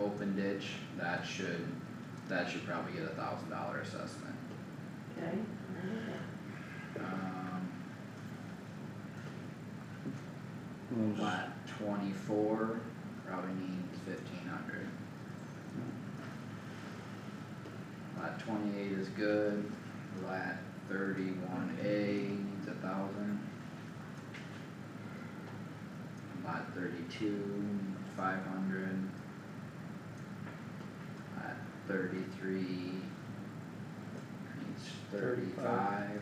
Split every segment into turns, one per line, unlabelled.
open ditch, that should, that should probably get a thousand dollar assessment.
okay, alright,
Um,
Well, it's-
Lat twenty-four, probably needs fifteen hundred. Lat twenty-eight is good, lat thirty-one A needs a thousand. Lot thirty-two, five hundred. Lot thirty-three needs thirty-five.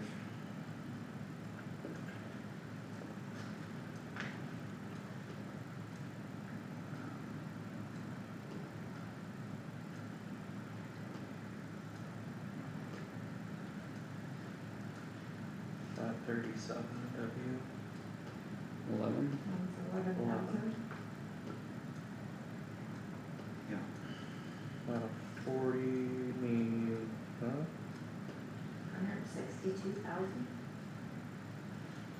Lot thirty-seven W,
Eleven,
that's eleven thousand.
lot of forty, need, huh?
Hundred sixty-two thousand?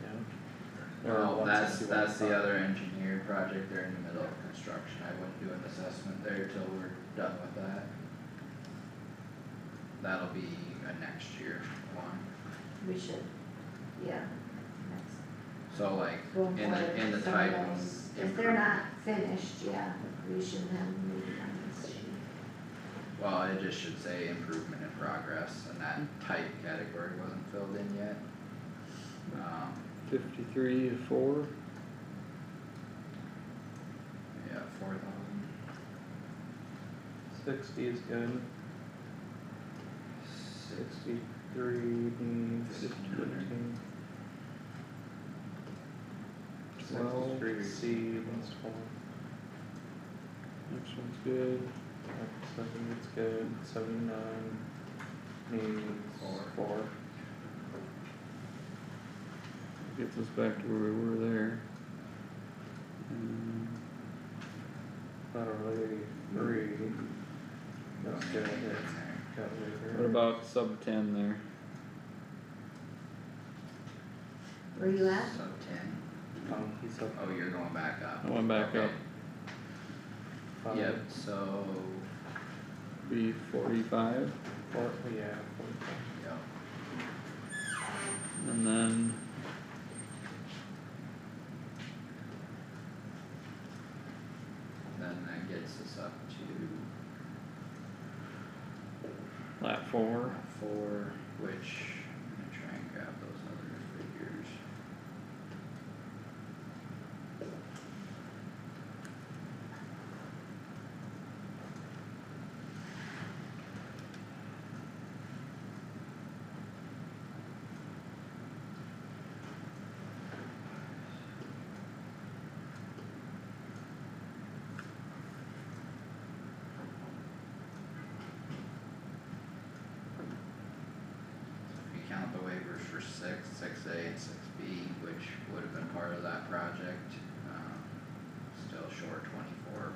Yeah. Or
Well, that's,
161.
that's the other engineer project, they're in the middle of construction, I wouldn't do an assessment there till we're done with that. That'll be a next year one,
We should, yeah, that's.
so like,
Going
in the,
forward,
in the
some
title.
of those, if they're not finished, yeah, we should have moved on this sheet.
Well, it just should say improvement in progress, and that type category wasn't filled in yet. Um,
fifty-three, four,
yeah, four thousand,
Sixty is good,
six,
sixty-three mm, needs
Fifteen hundred.
fifteen.
Well,
Sixty-three C, that's one,
next one's good,
Yep, seventy is good, seventy-nine needs
Four.
four.
gets us back to where we were there. Um,
Lot of Hmm. really three, that's
don't
good,
need anything in
it's
there.
got later.
What about sub ten there?
Where you at?
Sub ten.
Um, he's up
Oh, you're going back up.
I went back
Okay.
up.
five,
Yep, so,
Be forty-five,
four, yeah, four.
yep,
and then.
then that gets us up to
Lat four,
four, which, I'm gonna try and grab those other figures. If you count the waivers for six, six A and six B, which would have been part of that project, um, still short twenty-four,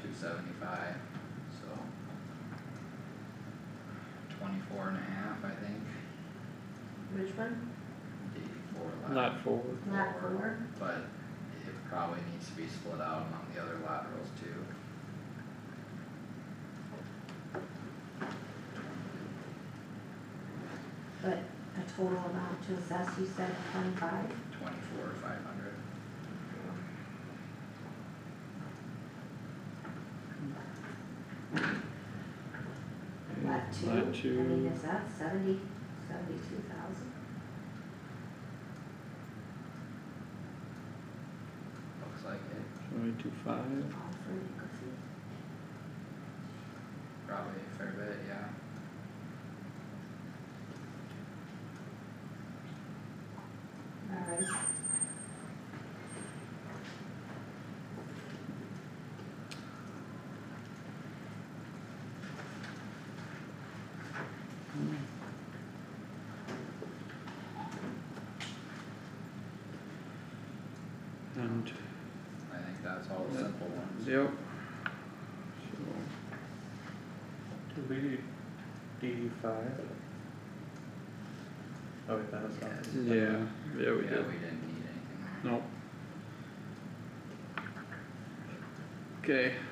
two seventy-five, so. Twenty-four and a half, I think,
Which one?
eighty-four left.
lat four,
Lot four?
But it probably needs to be split out among the other laterals too.
But a total amount to assess, you said twenty-five?
Twenty-four, five hundred.
Lot two?
Lot
I mean,
two.
is that seventy, seventy-two thousand?
Looks like it,
seventy-two five,
All for legal fees?
probably a fair bit, yeah.
Alright,
and,
I think that's all the
Yeah.
simple ones.
yep.
Did we do D five? Oh wait, that was not.
Yes.
So, yeah, yeah,
Yeah,
we did,
we didn't need anything.
nope. Okay.